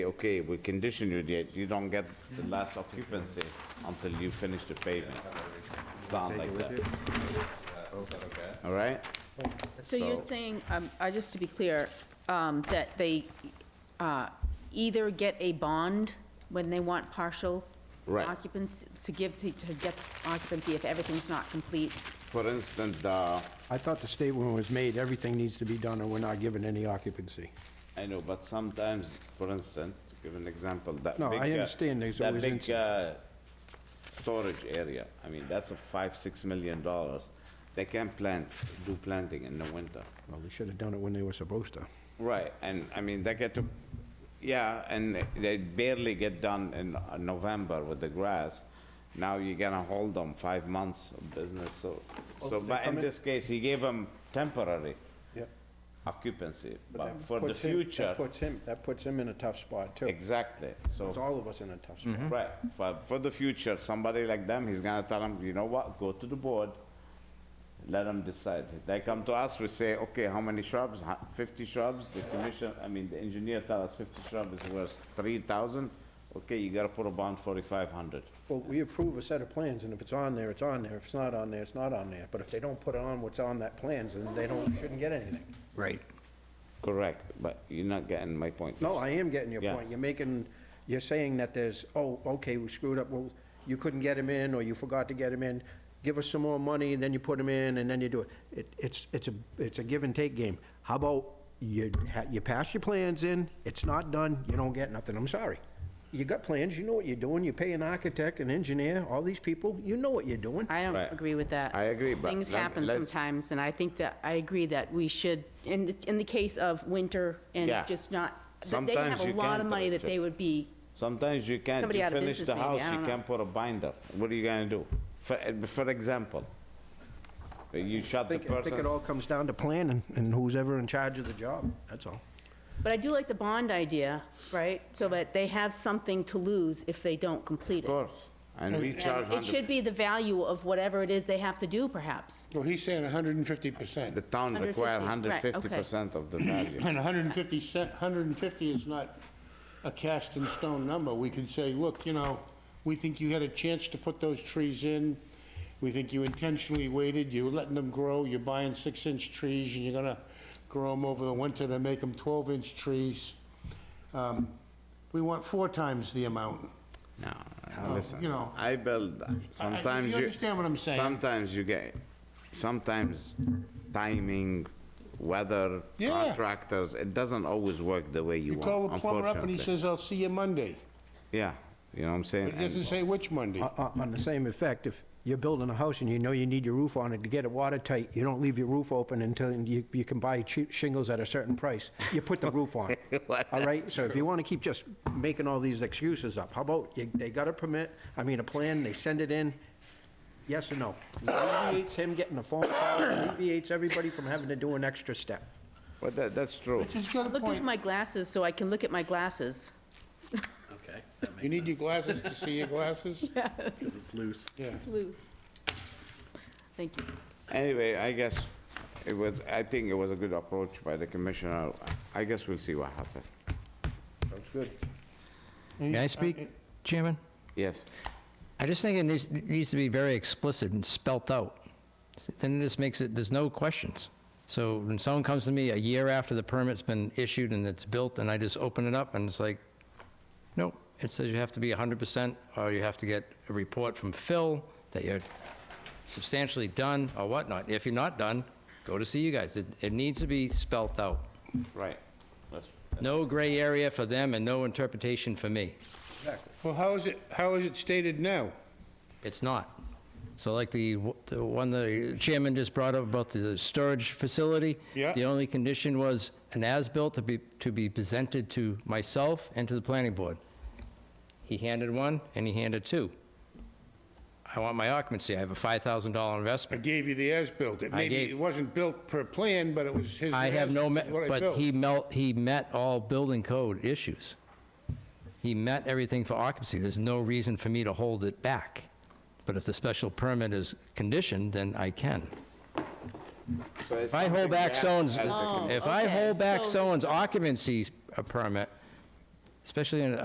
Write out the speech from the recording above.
okay, we condition you that you don't get the last occupancy until you finish the paving. Sound like that. All right? So you're So- saying, um, uh, just to be clear, um, that they uh, either get a bond when they want partial Right. occupancy, to give, to to get occupancy if everything's not complete? For instance, uh, the, I thought the statement was made, everything needs to be done and we're not giving any occupancy. I know, but sometimes, for instance, to give an example, that No, big, I uh, understand there's always That big, uh, instances. storage area, I mean, that's a five, six million dollars. They can plant, do planting in the winter. Well, they should have done it when they were supposed to. Right, and I mean, they get to, yeah, and they barely get done in uh, November with the grass. Now you're gonna hold them five months of business, so, so, but in this case, he gave them temporary Yep. occupancy, but for the future, That puts him, that puts him in a tough spot too. exactly, Puts so, Mm-hmm. all of us in a tough spot. right, but for the future, somebody like them, he's gonna tell them, you know what, go to the board, let them decide. If They come to us, we say, okay, how many shrubs? Ho- Fifty shrubs? The commission, I mean, the engineer tell us fifty shrubs is worth three thousand. Okay, you gotta put a bond forty-five hundred. Well, we approve a set of plans and if it's on there, it's on there. If it's not on there, it's not on there. But if they don't put on what's on that plans, then they don't, shouldn't get anything. Right. Correct, but you're not getting my point. No, I am getting your Yeah. point. You're making, you're saying that there's, oh, okay, we screwed up, well, you couldn't get him in, or you forgot to get him in. Give us some more money, and then you put him in, and then you do it. It, it's, it's a, it's a give and take game. How about you, ha- you pass your plans in, it's not done, you don't get nothing, I'm sorry. You got plans, you know what you're doing, you pay an architect, an engineer, all these people, you know what you're doing. I don't Right. agree with that. I agree, but Things let- happen let's- sometimes, and I think that, I agree that we should, in, in the case of winter and Yeah. just not, that they Sometimes have a you lot can't of money that direct it. they would be, Sometimes you can't, Somebody you out of finish business the maybe, house, I you don't can't put a binder. What are you gonna do? For, for example, you shut I the think, I think it person's all comes down to planning, and who's ever in charge of the job, that's all. but I do like the bond idea, right? So that they have something to lose if they don't complete it. Of course, and we charge And it should 100. be the value of whatever it is they have to do, perhaps. Well, he's saying 150%. The town require 150, right, okay. 150% of the value. And 150 cent, 150 is not a cast in stone number. We could say, look, you know, we think you had a chance to put those trees in. We think you intentionally waited, you were letting them grow, you're buying six-inch trees, and you're gonna grow them over the winter to make them 12-inch trees. Um, We want four times the amount. No, No, listen, you know. I build, sometimes you... you understand what I'm saying. Sometimes you get, sometimes timing, weather, Yeah. contractors, it doesn't always work the way you You call want, the plumber up and he unfortunately. says, I'll see you Monday. Yeah, you know what I'm saying? It doesn't And- Uh, say which Monday. On- Uh, On on the same effect, if you're building a house and you know you need your roof on it to get it watertight, you don't leave your roof open until you, you can buy cheap shingles at a certain price. You put the roof on. All right? So if you want to keep just making all these excuses up, how about you- they got a permit, I mean, a plan, they send it in, yes or no? It Alleviates him getting a phone call, it alleviates everybody from having to do an extra step. But that, that's true. She's got a Looking for point. my glasses so I can look at my glasses. Okay, that You makes need your glasses to see your glasses? sense. It's loose. It's loose. Thank you. Anyway, I guess it was, I think it was a good approach by the commissioner. I guess we'll see what happens. Sounds good. Can May I speak, Chairman? Yes. uh, I just think it needs, it needs to be very explicit and spelt out. Then this makes it, there's no questions. So when someone comes to me a year after the permit's been issued and it's built, and I just open it up, and it's like, nope, it says you have to be 100%, or you have to get a report from Phil that you're substantially done, or whatnot. If you're not done, go to see you guys. It, it needs to be spelt out. Right. That's- No gray area for them and no interpretation for me. Well, how is it, how is it stated now? It's not. So like the, the one the chairman just brought up about the storage facility? Yeah. The only condition was an as-built to be, to be presented to myself and to the planning board. He handed one, and he handed two. I want my occupancy, I have a $5,000 I investment. gave you the as-built. It I maybe, gave- it wasn't built per plan, but it was his. I have no, me- as-built is what I but built. he melt, he met all building code issues. He met everything for occupancy. There's no reason for me to hold it back. But if the special permit is conditioned, then I can. So it's If I something hold we back have someone's, as a Oh. commi- if I okay, hold back so- someone's occupancy s- uh, permit, especially in a